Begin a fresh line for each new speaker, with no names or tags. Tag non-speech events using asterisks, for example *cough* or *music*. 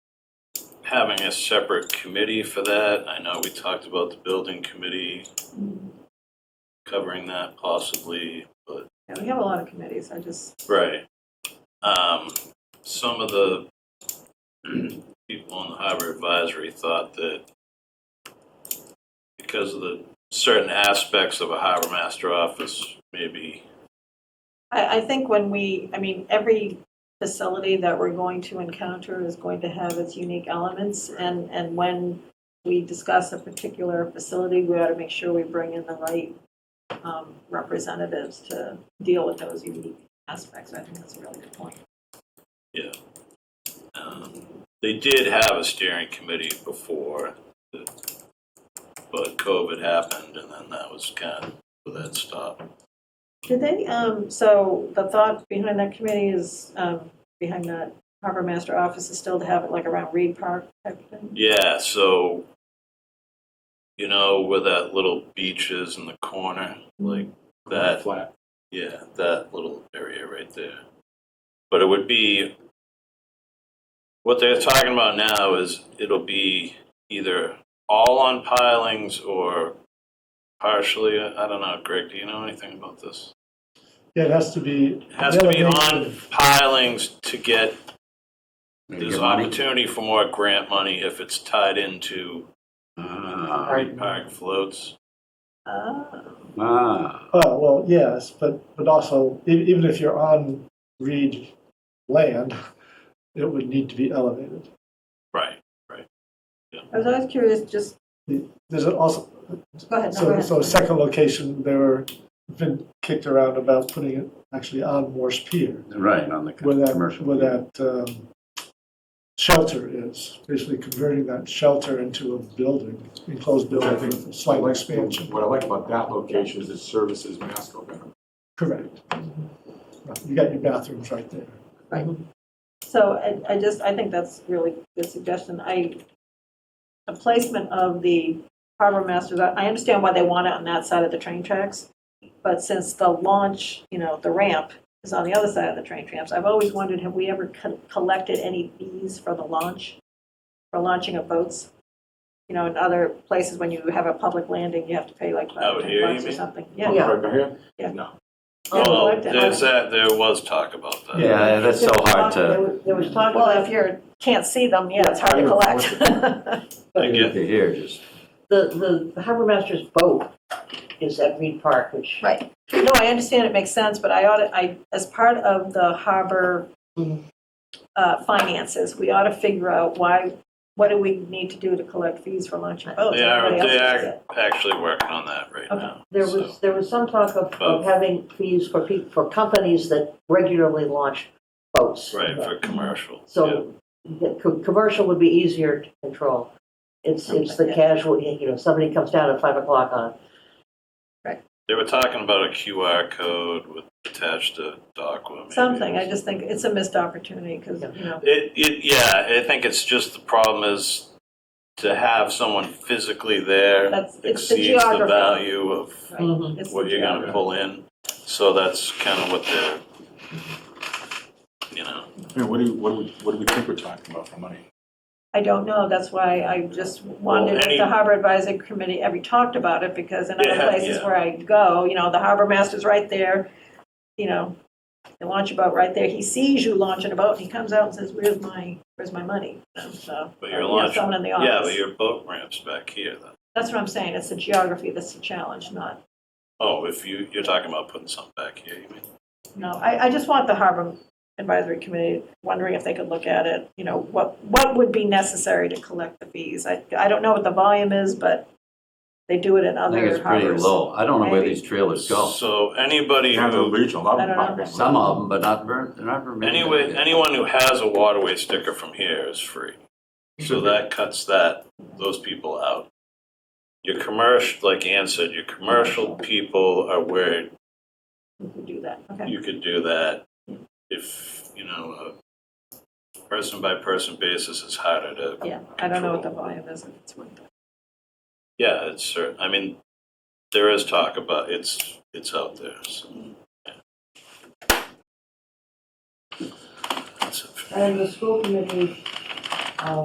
having a separate committee for that. I know we talked about the building committee covering that possibly, but,
Yeah, we have a lot of committees, I just,
right. Um, some of the *clears throat* people on the harbor advisory thought that because of the certain aspects of a harbor master office, maybe,
I, I think when we, I mean, every facility that we're going to encounter is going to have its unique elements, and, and when we discuss a particular facility, we ought to make sure we bring in the right um, representatives to deal with those unique aspects, I think that's a really good point.
um, they did have a steering committee before, but COVID happened and then that was kind of where that stopped.
Did they, um, so the thought behind that committee is, um, behind that harbor master office is still to have it like around Reed Park type of thing?
Yeah, so you know where that little beach is in the corner, like that.
Flat.
Yeah, that little area right there. But it would be what they're talking about now is it'll be either all on pilings or partially. I don't know, Greg. Do you know anything about this?
Yeah, it has to be.
It has to be
Yeah,
on pilings to get
Maybe
there's
get money.
opportunity for more grant money if it's tied into
Ah,
Right.
park floats.
Oh,
ah,
Oh, well, yes, but, but also, e- even if you're on Reed land, it would need to be elevated.
Right.
I was always curious, just,
There's also,
go ahead, no, go
so,
ahead.
so a second location, they were, been kicked around about putting it actually on Morse Pier,
right, on the
where that,
commercial.
where that um, shelter is, basically converting that shelter into a building, enclosed building with a
What I
slight
like-
expansion.
What I like about that location is it services Masco better.
Correct. You got your bathrooms right there.
So I, I just, I think that's really good suggestion. I, the placement of the harbor masters, I I understand why they want it on that side of the train tracks, but since the launch, you know, the ramp is on the other side of the train tracks, I've always wondered, have we ever co- collected any fees for the launch, for launching of boats? You know, in other places, when you have a public landing, you have to pay like
Out
five, ten
here, you
bucks or
mean?
something.
Oh,
Yeah.
right here?
Yeah.
No.
Yeah,
Well,
collect it.
there's that, there was talk about that.
Yeah, that's so hard to,
There was talk
Well, if
about
you can't see them, yeah, it's hard to collect.
I get,
to hear, just,
the, the harbor master's boat is at Reed Park, which.
Right. *laughs* No, I understand it makes sense, but I ought to, I, as part of the harbor uh, finances, we ought to figure out why, what do we need to do to collect fees for launching boats?
they are,
Everybody
they
Oh, else does
are actually working on that right
Okay.
now.
There
so-
was, there was some talk of,
Oh.
of having fees for people, for companies that regularly launch boats.
Right, for commercial. yeah.
So the co- commercial would be easier to control. It's, it's the
Yeah.
casual, you know, somebody comes down at five o'clock on,
They were talking about a QR code with attached to Aqua.
it. Something, I just think it's a missed opportunity, because, you know,
It, it, yeah, I think it's just the problem is to have someone physically there
that's, it's the
exceeds the
geography.
value of
Mhm.
It's the
what you're
geography.
gonna pull in. So that's kind of what they're, you know,
Yeah, what do you, what do we, what do we think we're talking about for money?
I don't know, that's why I just
Well,
wondered if
any-
the harbor advisory committee ever talked about it, because in
Yeah,
other places
yeah.
where I go, you know, the harbor master's right there, you know, they launch a boat right there, he sees you launching a boat, and he comes out and says, where's my, where's my money? So,
but
or,
you're
you know,
launching.
Someone in the
Yeah, but
office.
your boat ramps back here then.
That's what I'm saying, it's the geography that's the challenge, not,
Oh, if you, you're talking about putting something back here, you mean?
no, I, I just want the harbor advisory committee wondering if they could look at it, you know, what, what would be necessary to collect the fees? I, I don't know what the volume is, but they do it in
I
other
think
harbors.
it's pretty low. I don't know where
Maybe.
these trailers go.
So anybody
Yeah, the
who,
regional, a lot
I
of
don't
them.
know.
Some of them, but not, ver- they're not very many.
anyway, anyone who has a waterway sticker from here is free. So that cuts that, those people out. Your commercial, like Ann said, your commercial people are where
We could do that, okay.
you could do that. If, you know, a person by person basis is harder to,
Yeah, I don't know what the volume is. if it's worth it.
yeah, it's certain, I mean, there is talk about, it's, it's out there, so. yeah. That's it for me.
and the school committee